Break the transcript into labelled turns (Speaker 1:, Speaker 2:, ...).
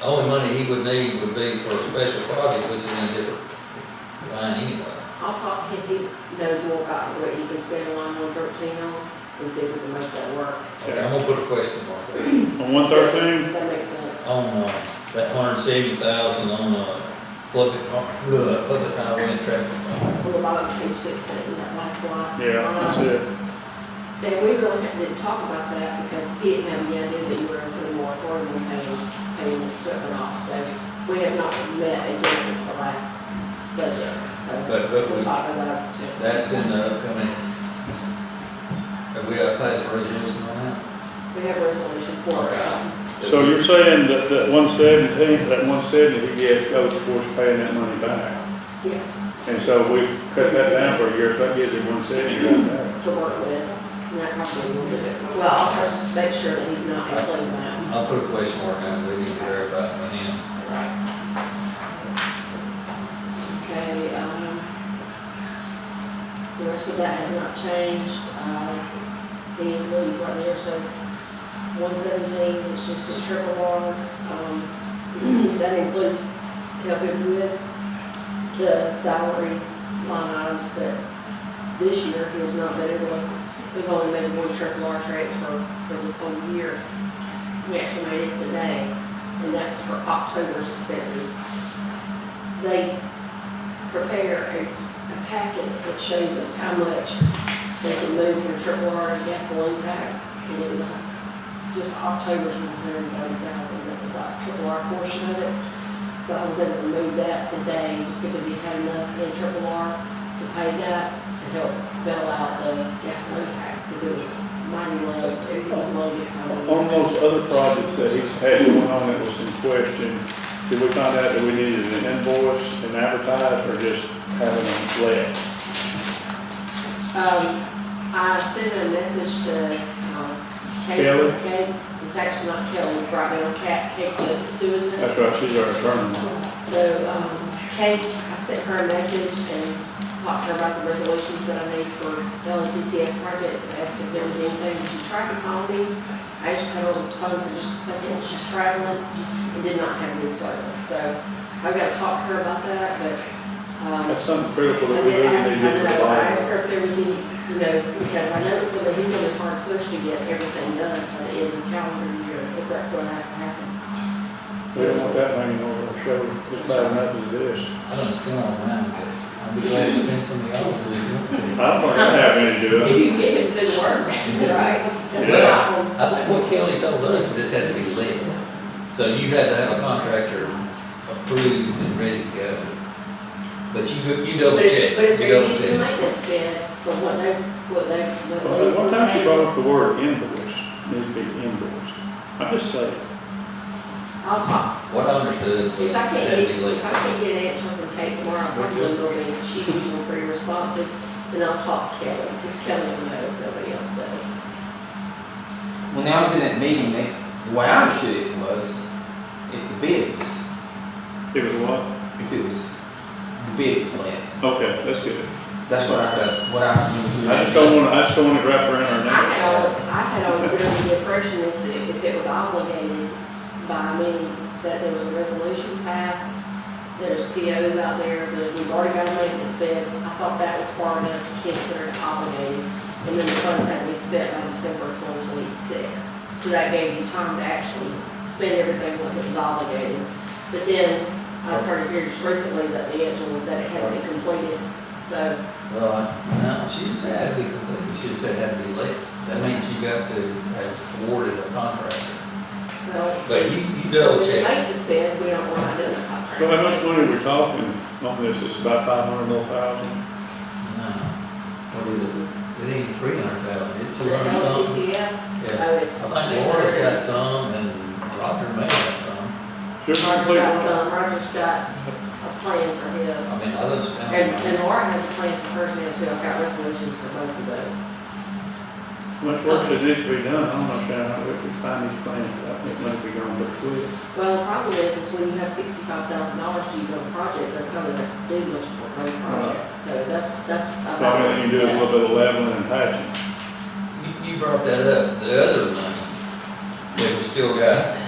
Speaker 1: The only money he would need would be for a special project, which is in a different line anyway.
Speaker 2: I'll talk to him, he knows more about what you can spend line one thirteen on, and see if we can make that work.
Speaker 1: Okay, I'm gonna put a question mark there.
Speaker 3: On one thirteen,
Speaker 2: That makes sense.
Speaker 3: Oh.
Speaker 1: On, uh, that hundred and seventy thousand on, uh, public, uh, public highway and traffic. uh,
Speaker 2: Well, about page sixteen, that last line.
Speaker 3: yeah, that's it.
Speaker 2: Sam, we really hadn't- didn't talk about that because he didn't have any idea that you were putting more toward him paying, paying this equipment off. So we have not met again since the last budget, so
Speaker 1: But, but we,
Speaker 2: we'll talk about it too.
Speaker 1: that's in the upcoming. Have we got a pass a resolution on that?
Speaker 2: We have a resolution for, um,
Speaker 3: So you're saying that, that one seventeen, that one seventy we get, goes towards paying that money back.
Speaker 2: yes,
Speaker 3: And so we cut that down for a year, if that gives you one seventy back.
Speaker 2: to work with. And that probably will do it. Well, I'll have to make sure that he's not including that.
Speaker 1: I'll put a question mark on it, we need to verify it when in.
Speaker 2: Right. Okay, um, the rest of that has not changed, uh, the employees right there, so one seventeen is just a strip along, um, that includes helping with the salary line items, but this year he has not been able, we've only made one trip alarm transfer for this whole year. We actually made it today and that was for October's expenses. They prepare a, a packet that shows us how much they can move from triple R to gasoline tax, and it was, a- just October's was hundred and thirty thousand, that was like triple R portion of it. So I was able to move that today, just because he had enough in triple R to pay that, to help bail out the gasoline tax, because it was mighty low, it was slow this time of year.
Speaker 3: On those other projects that he's had going on that was in question, did we find out that we needed an invoice and advertise or just having them left?
Speaker 2: Um, I sent a message to, um, Kate.
Speaker 3: Kelly?
Speaker 2: Kate, it's actually not Kelly, right now, Kat, Kate just is doing this.
Speaker 3: That's right, she's our attorney.
Speaker 2: So, um, Kate, I sent her a message and talked to her about the resolutions that I made for LNPCF projects and asked if there was anything. She tried to call me. I actually had her on this phone for just a second. She's traveling and did not have good service. So I've got to talk to her about that, but, um.
Speaker 3: That's something critical
Speaker 2: I
Speaker 3: that we
Speaker 2: did
Speaker 3: really need
Speaker 2: ask,
Speaker 3: to
Speaker 2: I
Speaker 3: get
Speaker 2: know, I
Speaker 3: resolved.
Speaker 2: asked her if there was any, you know, because I know it's gonna, he's gonna hard push to get everything done by the end of the calendar year, if that's what has to happen.
Speaker 3: We don't want that hanging over our shoulder, it's bad enough as it is.
Speaker 1: I don't spend all mine, but I'd be glad to spend some of y'all's if you
Speaker 3: I
Speaker 1: want.
Speaker 3: don't think I have any to do
Speaker 2: If
Speaker 3: it.
Speaker 2: you get him to do the work, right? That's the
Speaker 3: Yeah.
Speaker 2: problem.
Speaker 1: I think what Kelly told us, this had to be legal, so you had to have a contractor approved and ready to go. But you, go- you double
Speaker 2: But if,
Speaker 1: check,
Speaker 2: but if
Speaker 1: you
Speaker 2: they're
Speaker 1: double check.
Speaker 2: using maintenance bid, from what they, what they, what
Speaker 3: Well,
Speaker 2: they've
Speaker 3: One time she
Speaker 2: been saying,
Speaker 3: brought up the word invoice, needs to be invoiced. I just say,
Speaker 2: I'll talk.
Speaker 1: What I understood was
Speaker 2: If I
Speaker 1: that
Speaker 2: can't
Speaker 1: had to
Speaker 2: get,
Speaker 1: be legal.
Speaker 2: if I can't get an answer from Kate tomorrow, I'm probably gonna be, she's usually pretty responsive, then I'll talk to Kelly, because Kelly will know if nobody else does.
Speaker 4: When I was in that meeting, they, the way I understood it was, if the bid was,
Speaker 3: it was what?
Speaker 4: if it was, the bid was left.
Speaker 3: Okay, that's good.
Speaker 4: That's what I, that's what I.
Speaker 3: I just don't want, I just don't want to wrap around our
Speaker 2: I
Speaker 3: neck.
Speaker 2: had always, I had always been under the impression if, it- if it was obligated by me, that there was a resolution passed, there's POs out there, there's, we've already got a maintenance bid, I thought that was far enough to consider it obligated, and then the funds had to be spent by December twenty twenty-six, so that gave you time to actually spend everything once it was obligated. But then, I started hearing just recently that the answer was that it had to be completed, so
Speaker 1: Well, I- no, she didn't say it had to be completed, she just said it had to be legal. That means you got to have awarded a contractor.
Speaker 2: Well,
Speaker 1: So you, you double
Speaker 2: If
Speaker 1: check.
Speaker 2: we make this bid, we don't want to do the contract.
Speaker 3: So how much money we're talking on this, it's about five hundred more thousand?
Speaker 1: No, what is it? It ain't three hundred thousand, it's
Speaker 2: The
Speaker 1: two hundred something.
Speaker 2: LGCF,
Speaker 1: Yeah. I
Speaker 2: oh, it's.
Speaker 1: think Laura's got some and Roger may have some.
Speaker 3: Just
Speaker 2: Roger's got
Speaker 3: complete,
Speaker 2: some, Roger's got a plan for his,
Speaker 1: I mean, others.
Speaker 2: and, and Laura has a plan for hers now too, I've got resolutions for both of those.
Speaker 3: much work that needs to be done, I'm not sure how we can find these plans, but I think money we going to quick.
Speaker 2: Well, the problem is, is when you have sixty-five thousand dollars to use on a project, that's not gonna do much for a project, so that's, that's.
Speaker 3: So all we can do is a little bit of leveling and patching.
Speaker 1: You, you brought that up, the other money that we still got,